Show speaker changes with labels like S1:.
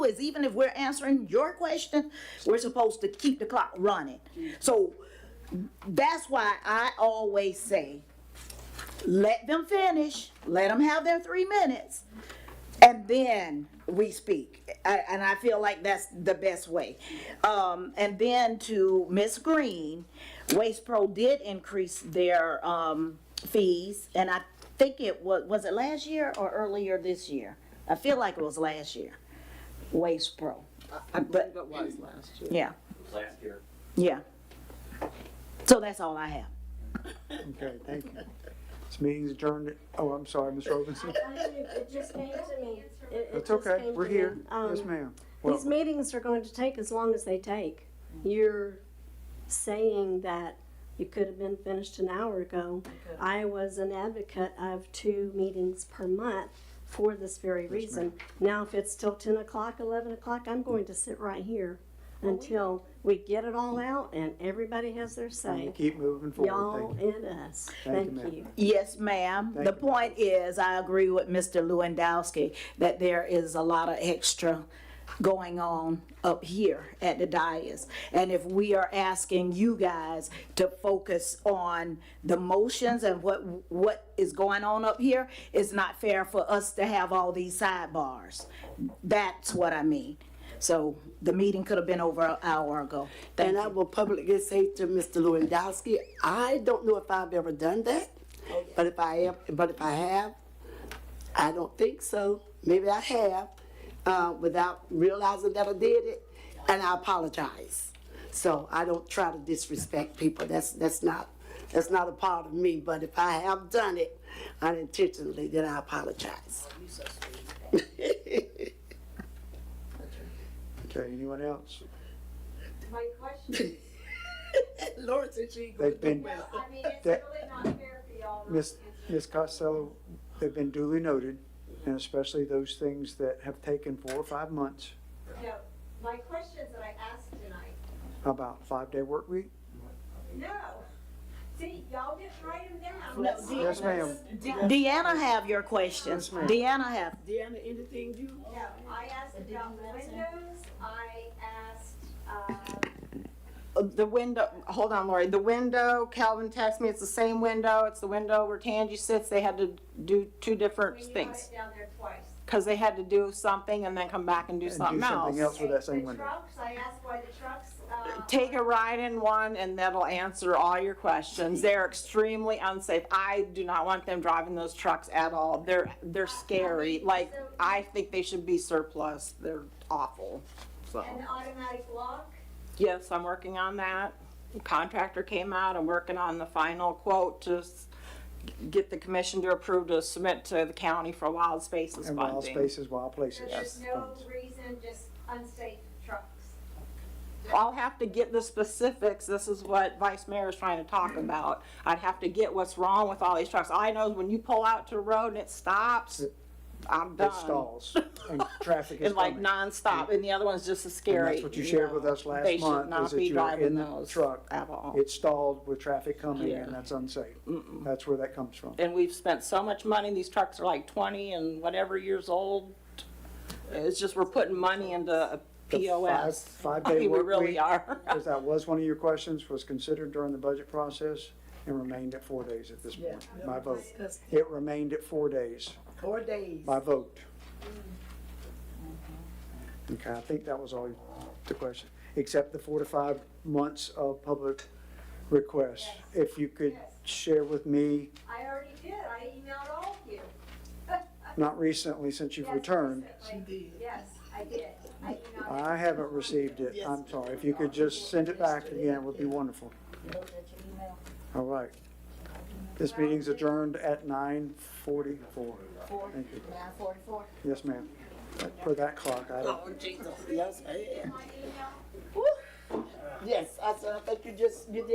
S1: is even if we're answering your question, we're supposed to keep the clock running. So that's why I always say, let them finish, let them have their three minutes, and then we speak. I- And I feel like that's the best way. Um, and then to Ms. Green, Waste Pro did increase their, um, fees, and I think it was, was it last year or earlier this year? I feel like it was last year, Waste Pro. I- But,
S2: What was last year?
S1: yeah,
S3: last year.
S1: yeah. So that's all I have.
S4: Okay, thank you. This meeting's adjourned. Oh, I'm sorry, Ms. Robinson.
S2: It just came to me. It- it
S4: That's
S2: just
S4: okay.
S2: came
S4: We're
S2: to me.
S4: here.
S2: Um,
S4: Yes, ma'am.
S2: These
S4: Well,
S2: meetings are going to take as long as they take. You're saying that it could have been finished an hour ago. I was an advocate of two meetings per month for this very reason. Now, if it's till ten o'clock, eleven o'clock, I'm going to sit right here until we get it all out and everybody has their
S4: we
S2: say.
S4: keep moving forward.
S2: Y'all
S4: Thank you.
S2: and us.
S4: Thank you,
S2: Thank
S4: ma'am.
S2: you.
S1: Yes, ma'am.
S4: Thank
S1: The
S4: you.
S1: point is, I agree with Mr. Lewandowski that there is a lot of extra going on up here at the dais. And if we are asking you guys to focus on the motions and what, what is going on up here, it's not fair for us to have all these sidebars. That's what I mean. So the meeting could have been over an hour ago. Thank
S5: And I
S1: you.
S5: will publicly say to Mr. Lewandowski, I don't know if I've ever done that, but if I am, but if I have, I don't think so. Maybe I have, uh, without realizing that I did it, and I apologize. So I don't try to disrespect people. That's, that's not, that's not a part of me, but if I have done it unintentionally, then I apologize.
S4: Okay, anyone else?
S6: My question,
S5: Lord said she.
S4: They've been,
S6: I mean, it's
S4: That-
S6: really not fair for y'all. not
S4: Ms.
S6: to
S4: Ms. Costello, they've been duly noted, and especially those things that have taken four or five months,
S6: No, my questions that I asked tonight,
S4: about five-day work week.
S6: no. See, y'all didn't write them down.
S1: No, De-
S4: Yes, ma'am.
S1: Deanna have your questions. Deanna have.
S5: Deanna, anything you?
S6: No, I asked about windows, I asked, uh,
S7: the window, hold on, Lori, the window, Calvin texted me, it's the same window, it's the window where Tangi sits, they had to do two different
S6: when you got
S7: things.
S6: it down there twice.
S7: Cause they had to do something and then come back and do
S4: do
S7: something else.
S4: something else. That's what that same
S6: The
S4: window.
S6: trucks, I asked why the trucks, uh.
S7: Take a ride in one and that'll answer all your questions, they're extremely unsafe, I do not want them driving those trucks at all, they're, they're scary, like, I think they should be surplus, they're awful, so.
S6: An automatic lock,
S7: Yes, I'm working on that. The Contractor came out, I'm working on the final quote to s- get the commission to approve to submit to the county for wild spaces
S4: And wild
S7: funding.
S4: spaces, wild
S6: so
S4: places.
S6: there's no reason, just unsafe trucks.
S7: I'll have to get the specifics, this is what Vice Mayor is trying to talk about. I'd have to get what's wrong with all these trucks. All I know is when you pull out to the road and it stops, I'm done.
S4: It stalls, and traffic is
S7: And like
S4: coming.
S7: nonstop, and the other one's just as
S4: And
S7: scary.
S4: that's what you shared with us
S7: They
S4: last
S7: should
S4: month,
S7: not
S4: is that
S7: be
S4: you're in
S7: driving
S4: the
S7: those
S4: truck.
S7: at all.
S4: It stalled with traffic coming, and
S7: Yeah.
S4: that's unsafe. That's where that comes from.
S7: and we've spent so much money, these trucks are like twenty and whatever years old. It's just, we're putting money into a
S4: The
S7: POS.
S4: five-
S7: I
S4: Five-day
S7: mean, we
S4: work week.
S7: really are.
S4: Because that was one of your questions, was considered during the budget process and remained at four days at this point, my vote. It remained at four days,
S5: Four days.
S4: my vote.
S5: Mm-hmm.
S4: Okay, I think that was all the question, except the four to five months of public requests. If you could share with me,
S6: I already did, I emailed all of you.
S4: not recently since you've
S6: Yes,
S4: returned,
S6: recently. Yes, I did, I emailed.
S4: I haven't received it, I'm sorry. If you could just send it back again, it would be wonderful. All right. This meeting's adjourned at nine forty-four. Thank you.
S8: Nine forty-four.
S4: Yes, ma'am. For that clock, I don't,
S5: Jesus, yes, I am.
S6: My email
S5: Yes, I, said, I think you just, you did